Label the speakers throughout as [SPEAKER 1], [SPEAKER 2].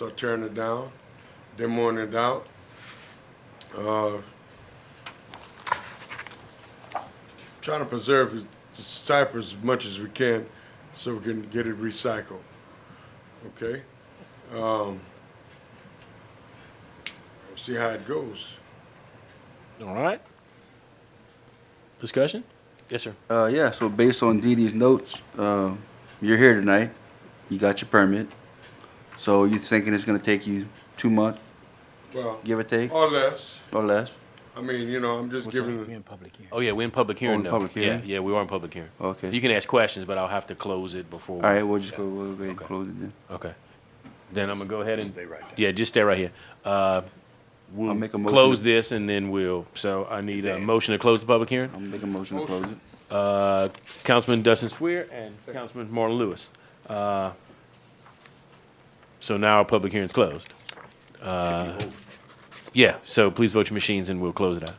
[SPEAKER 1] start tearing it down, demoing it out. Uh, trying to preserve the cypress as much as we can so we can get it recycled. Okay? Um, see how it goes.
[SPEAKER 2] All right. Discussion? Yes, sir.
[SPEAKER 3] Uh, yeah, so based on Dee Dee's notes, uh, you're here tonight, you got your permit, so you thinking it's gonna take you two months,
[SPEAKER 1] Well,
[SPEAKER 3] give or take,
[SPEAKER 1] or less.
[SPEAKER 3] or less?
[SPEAKER 1] I mean, you know, I'm just
[SPEAKER 2] What's
[SPEAKER 1] giving.
[SPEAKER 4] We in public here.
[SPEAKER 2] Oh, yeah, we're in public hearing
[SPEAKER 3] in
[SPEAKER 2] though.
[SPEAKER 3] public hearing?
[SPEAKER 2] Yeah, yeah, we are in public hearing.
[SPEAKER 3] Okay.
[SPEAKER 2] You can ask questions, but I'll have to close it before. we-
[SPEAKER 3] All right, we'll just go, we'll go ahead and
[SPEAKER 2] Okay.
[SPEAKER 3] close it then.
[SPEAKER 2] Okay. Then I'm gonna go ahead and.
[SPEAKER 4] Stay right there.
[SPEAKER 2] Yeah, just stay right here. Uh, We'll
[SPEAKER 3] I'll make a motion
[SPEAKER 2] close
[SPEAKER 3] to-
[SPEAKER 2] this and then we'll, so I need a
[SPEAKER 4] Exactly.
[SPEAKER 2] motion to close the public hearing.
[SPEAKER 3] I'm making a motion to close it.
[SPEAKER 2] Uh, Councilman Dustin Swier and Councilman Marlon Lewis. Uh, So now our public hearing's closed. Uh, Yeah, so please vote your machines and we'll close it out.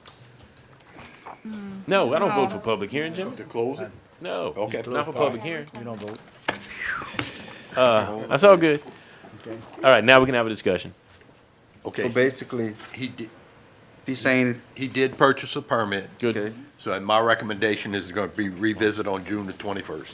[SPEAKER 2] No, I don't vote for public hearing, Jim.
[SPEAKER 4] To close it?
[SPEAKER 2] No,
[SPEAKER 4] Okay.
[SPEAKER 2] not for public hearing. Uh,
[SPEAKER 4] You don't vote?
[SPEAKER 2] That's all good.
[SPEAKER 4] Okay.
[SPEAKER 2] All right, now we can have a discussion.
[SPEAKER 3] So
[SPEAKER 5] Okay,
[SPEAKER 3] basically,
[SPEAKER 5] he did,
[SPEAKER 3] he's saying,
[SPEAKER 5] he did purchase a permit,
[SPEAKER 2] Good.
[SPEAKER 3] okay,
[SPEAKER 5] so my recommendation is gonna be revisit on June the twenty-first.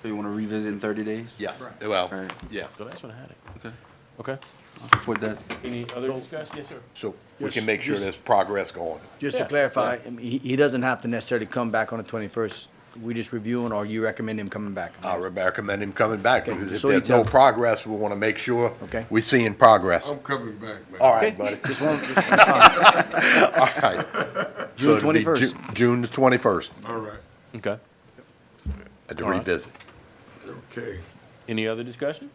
[SPEAKER 3] so you wanna revisit in thirty days?
[SPEAKER 5] Yes, well,
[SPEAKER 3] Right.
[SPEAKER 5] yeah,
[SPEAKER 2] The last one I had it.
[SPEAKER 3] Okay.
[SPEAKER 2] Okay.
[SPEAKER 3] I'll support that.
[SPEAKER 2] Any other discussion? Yes, sir.
[SPEAKER 5] so we
[SPEAKER 4] Yes,
[SPEAKER 5] can make sure
[SPEAKER 4] yes.
[SPEAKER 5] there's progress going.
[SPEAKER 4] Just to
[SPEAKER 2] Yeah.
[SPEAKER 4] clarify, I mean, he, he doesn't have to necessarily come back on the twenty-first. We just reviewing, or you recommend him coming back?
[SPEAKER 5] I would recommend him coming back,
[SPEAKER 4] Okay,
[SPEAKER 5] because if
[SPEAKER 4] so you
[SPEAKER 5] there's no
[SPEAKER 4] tell-
[SPEAKER 5] progress, we wanna make sure
[SPEAKER 4] Okay. Um,
[SPEAKER 5] we're seeing progress.
[SPEAKER 1] I'm coming back, man.
[SPEAKER 5] All right, buddy,
[SPEAKER 4] Just one, just one time.
[SPEAKER 5] all right. So
[SPEAKER 4] June
[SPEAKER 5] it'll be Ju-
[SPEAKER 4] 21st.
[SPEAKER 5] June the twenty-first,
[SPEAKER 1] All right.
[SPEAKER 2] Okay.
[SPEAKER 5] at the
[SPEAKER 2] All right.
[SPEAKER 5] revisit.
[SPEAKER 1] Okay.
[SPEAKER 2] Any other discussion?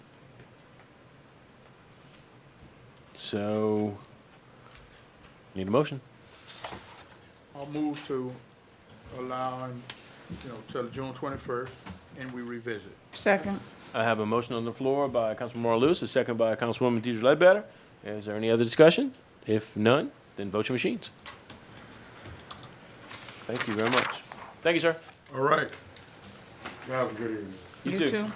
[SPEAKER 2] So, need a motion?
[SPEAKER 6] I'll move to allowing, you know, till June twenty-first, and we revisit.
[SPEAKER 7] Second.
[SPEAKER 2] I have a motion on the floor by Councilman Marl Lewis, a second by Councilwoman Deidre Ledbetter. Is there any other discussion? If none, then vote your machines. Thank you very much. Thank you, sir.
[SPEAKER 1] All right. Y'all Have a good evening.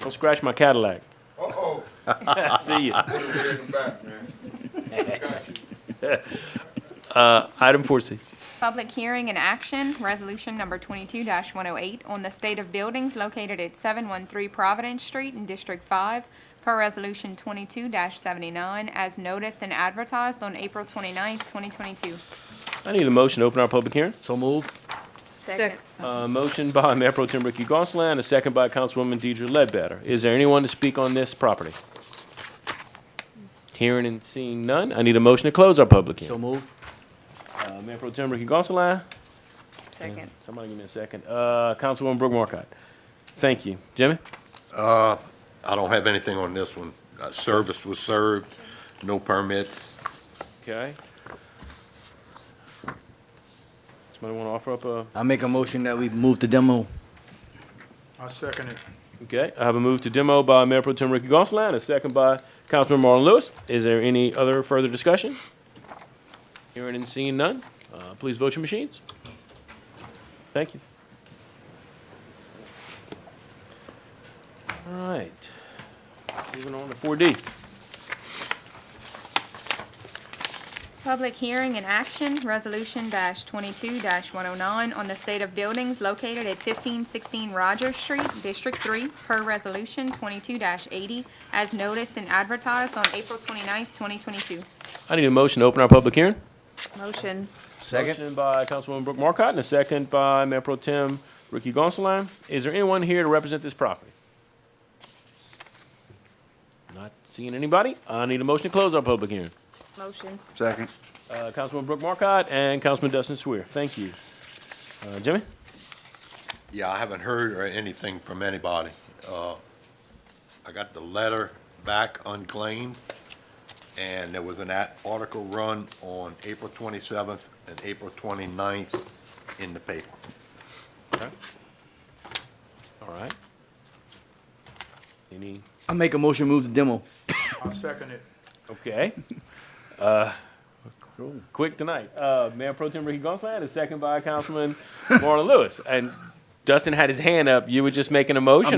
[SPEAKER 2] Don't scratch my Cadillac.
[SPEAKER 1] Uh-oh.
[SPEAKER 2] See ya.
[SPEAKER 1] Put it in the back, man. Got you.
[SPEAKER 2] Item four C.
[SPEAKER 8] Public hearing and action, resolution number twenty-two one oh eight on the state of buildings located at seven one three Providence Street in District Five per resolution twenty-two seventy-nine as noticed and advertised on April 29th, twenty-two.
[SPEAKER 2] I need a motion to open our public hearing.
[SPEAKER 4] So moved?
[SPEAKER 7] Second.
[SPEAKER 2] Uh, motion by Mayor Pro Tem Ricky Gonsalas, a second by Councilwoman Deidre Ledbetter. Is there anyone to speak on this property? Hearing and seeing none, I need a motion to close our public
[SPEAKER 4] So
[SPEAKER 2] hearing.
[SPEAKER 4] moved?
[SPEAKER 2] Uh, Mayor Pro Tem Ricky Gonsalas,
[SPEAKER 8] Second.
[SPEAKER 2] somebody give me a second. Uh, Councilwoman Brooke Marcotte. Thank you. Jimmy?
[SPEAKER 5] I don't have anything on this one. Uh, Service was served, no permits.
[SPEAKER 2] Okay. Somebody want to offer up a,
[SPEAKER 4] I make a motion that we move the demo.
[SPEAKER 6] I second it.
[SPEAKER 2] okay, I have a move to demo by Mayor Pro Tem Ricky Gonsalas, a second by Councilman Marlon Lewis. Is there any other further discussion? Hearing and seeing none, uh, please vote your machines. Thank you. All right, moving on to four D.
[SPEAKER 8] Public hearing and action, resolution twenty-two one oh nine on the state of buildings located at fifteen sixteen Rogers Street, District Three per resolution twenty-two eighty as noticed and advertised on April 29th, twenty-two.
[SPEAKER 2] I need a motion to open our public hearing.
[SPEAKER 7] Motion.
[SPEAKER 4] Second?
[SPEAKER 2] Motion by Councilwoman Brooke Marcotte and a second by Mayor Pro Tem Ricky Gonsalas. Is there anyone here to represent this property? Not seeing anybody. I need a motion to close our public hearing.
[SPEAKER 7] Motion.
[SPEAKER 3] Second.
[SPEAKER 2] Uh, Councilwoman Brooke Marcotte and Councilman Dustin Swier. Thank you. Uh, Jimmy?
[SPEAKER 5] Yeah, I haven't heard or anything from anybody. Uh, I got the letter back unclaimed, and there was an at- article run on April 27th and April 29th in the paper.
[SPEAKER 2] All right. Any,
[SPEAKER 4] I make a motion, move the demo.
[SPEAKER 6] I second it.
[SPEAKER 2] okay. Uh,
[SPEAKER 4] Cool.
[SPEAKER 2] Quick tonight. Uh, Mayor Pro Tem Ricky Gonsalas and a second by Councilman Marlon Lewis. And Dustin had his hand up, you were just making a motion